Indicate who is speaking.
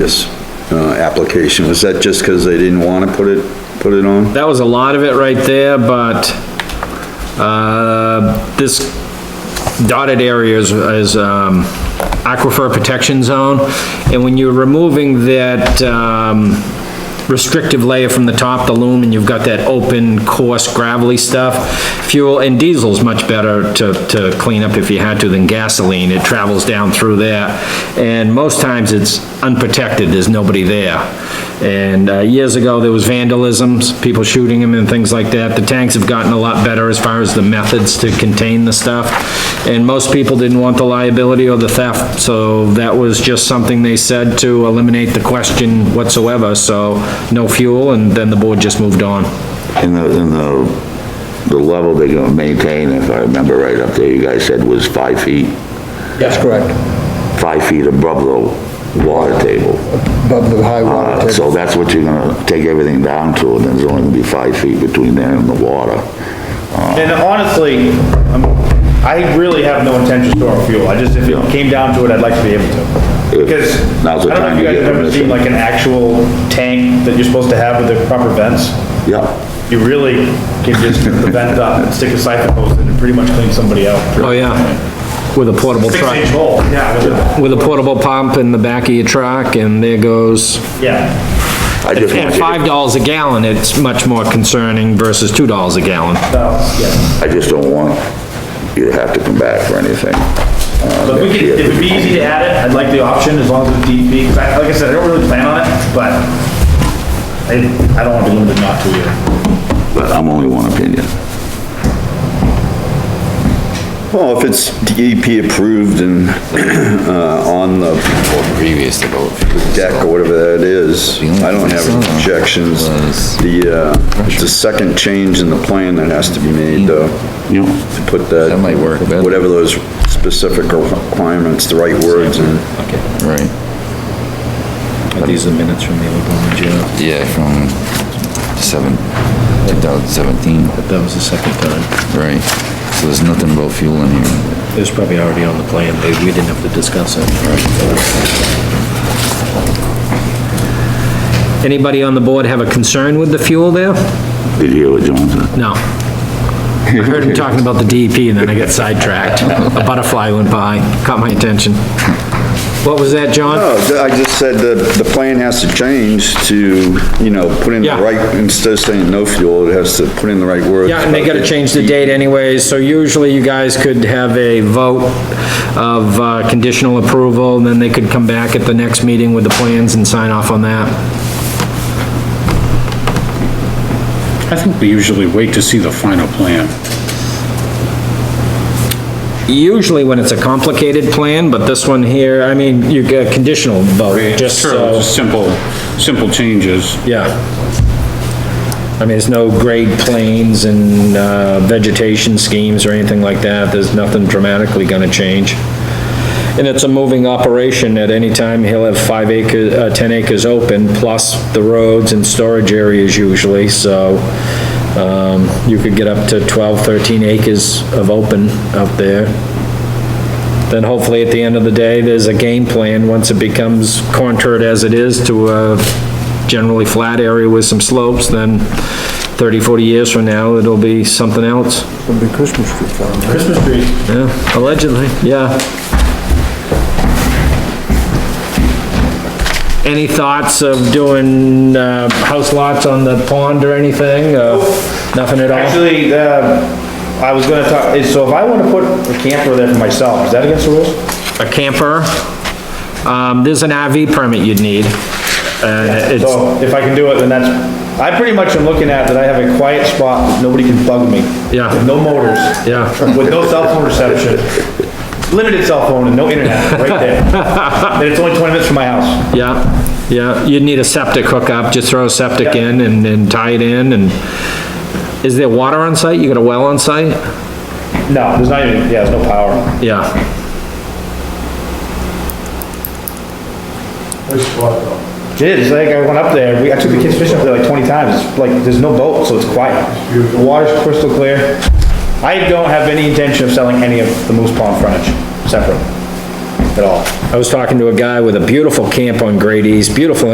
Speaker 1: this, uh, application? Was that just because they didn't want to put it, put it on?
Speaker 2: That was a lot of it right there, but, uh, this dotted area is, is, um, aquifer protection zone, and when you're removing that, um, restrictive layer from the top, the loom, and you've got that open, coarse, gravelly stuff, fuel, and diesel's much better to, to clean up if you had to than gasoline, it travels down through there, and most times it's unprotected, there's nobody there. And uh, years ago, there was vandalisms, people shooting them and things like that. The tanks have gotten a lot better as far as the methods to contain the stuff. And most people didn't want the liability or the theft, so that was just something they said to eliminate the question whatsoever, so no fuel, and then the board just moved on.
Speaker 3: And the, and the, the level they're gonna maintain, if I remember right up there, you guys said was five feet,
Speaker 4: That's correct,
Speaker 3: five feet above the water table.
Speaker 4: above the high
Speaker 3: Uh,
Speaker 4: water table.
Speaker 3: so that's what you're gonna take everything down to, and there's only gonna be five feet between there and the water.
Speaker 5: And honestly, I'm- I really have no intention of storing fuel, I just, if it came down to it, I'd like to be able to. Because, I
Speaker 3: Now's the
Speaker 5: don't know
Speaker 3: time
Speaker 5: if you
Speaker 3: to
Speaker 5: guys
Speaker 3: get
Speaker 5: have ever
Speaker 3: permission.
Speaker 5: seen like an actual tank that you're supposed to have with the proper vents.
Speaker 3: Yeah,
Speaker 5: You really can just put the vent up and stick a siphon hose in and pretty much clean somebody out.
Speaker 2: Oh, yeah, with a portable
Speaker 5: Six inch
Speaker 2: truck,
Speaker 5: hole, yeah, with a-
Speaker 2: with a portable pump in the back of your truck, and there goes.
Speaker 5: yeah,
Speaker 3: I just
Speaker 2: At
Speaker 3: want you,
Speaker 2: five
Speaker 3: to-
Speaker 2: dollars a gallon, it's much more concerning versus two dollars a gallon.
Speaker 5: so, yeah.
Speaker 3: I just don't want you to have to come back for anything. uh,
Speaker 5: But we
Speaker 3: next
Speaker 5: could,
Speaker 3: year.
Speaker 5: it would be easy to add it, I'd like the option as long as it's DEP, because I, like I said, I don't really plan on it, but I, I don't want to be limited not to either.
Speaker 3: But I'm only one opinion.
Speaker 1: Well, if it's DEP approved and, uh, on the
Speaker 6: previous to both.
Speaker 1: deck or whatever that is. I don't have objections. The, uh, it's a second change in the plan that has to be made, though.
Speaker 3: You,
Speaker 1: To put that.
Speaker 6: That might work better.
Speaker 1: Whatever those specific requirements, the right words and
Speaker 6: Right,
Speaker 2: These are minutes from the old one, Joe.
Speaker 6: yeah, from seven, 2017,
Speaker 2: That was the second time.
Speaker 6: right. So there's nothing about fuel in here.
Speaker 2: It was probably already on the plan, but we didn't have to discuss it. Anybody on the board have a concern with the fuel there?
Speaker 3: did you hear what John said?
Speaker 2: No. I heard him talking about the DEP and then I got sidetracked. A butterfly went by, caught my attention. What was that, John?
Speaker 1: No, th- I just said the, the plan has to change to, you know, put in the
Speaker 2: Yeah.
Speaker 1: right, instead of saying no fuel, it has to put in the right words.
Speaker 2: Yeah, and they gotta change the date anyways, so usually you guys could have a vote of uh, conditional approval, and then they could come back at the next meeting with the plans and sign off on that.
Speaker 7: I think we usually wait to see the final plan.
Speaker 2: Usually when it's a complicated plan, but this one here, I mean, you get a conditional vote, just so,
Speaker 7: Just Simple, simple changes.
Speaker 2: yeah. I mean, there's no grade planes and uh, vegetation schemes or anything like that, there's nothing dramatically gonna change. And it's a moving operation, at any time, he'll have five acre, uh, 10 acres open, plus the roads and storage areas usually, so, um, you could get up to 12, 13 acres of open out there. Then hopefully, at the end of the day, there's a game plan, once it becomes contoured as it is to a generally flat area with some slopes, then 30, 40 years from now, it'll be something else.
Speaker 4: It'll be Christmas tree farm.
Speaker 5: Christmas tree.
Speaker 2: Yeah, allegedly, yeah. Any thoughts of doing, uh, house lots on the pond or anything? Uh, Nothing at all?
Speaker 5: Actually, um, I was gonna talk, is- so if I wanna put a camper there for myself, is that against the rules?
Speaker 2: A camper? Um, there's an RV permit you'd need. Uh, it's,
Speaker 5: So if I can do it, then that's, I pretty much am looking at that I have a quiet spot, that nobody can bug me.
Speaker 2: Yeah.
Speaker 5: With No motors.
Speaker 2: yeah.
Speaker 5: With no cell phone reception, limited cell phone and no internet, right there. And it's only twenty minutes from my house.
Speaker 2: Yeah, yeah, you'd need a septic hookup, just throw a septic
Speaker 5: Yeah.
Speaker 2: in and, and tie it in and, is there water on site? You got a well on site?
Speaker 5: No, there's not even, yeah, there's no power.
Speaker 2: Yeah,
Speaker 5: It is, like, I went up there, we, I took the kids fishing up there like twenty times, it's like, there's no boat, so it's quiet. The water's crystal clear. I don't have any intention of selling any of the Moose Pond frontage, separate. at all.
Speaker 2: I was talking to a guy with a beautiful camp on Grady's, beautiful